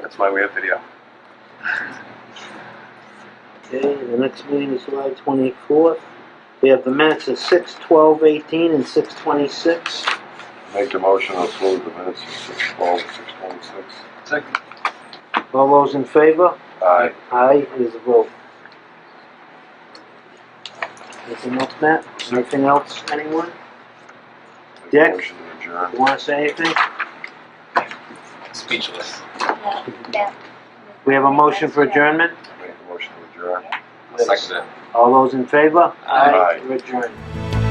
That's why we have video. Okay, the next meeting is July twenty-fourth. We have the minutes of six twelve eighteen and six twenty-six. Make the motion to approve the minutes of six twelve, six twenty-six. Second. All those in favor? Aye. Aye, it is a vote. Anything else, Matt? Anything else, anyone? Make the Dick? Motion to adjourn. Want to say anything? Speechless. We have a motion for adjournment? Make the motion to adjourn. Second. All those in favor? Aye. We're adjourned.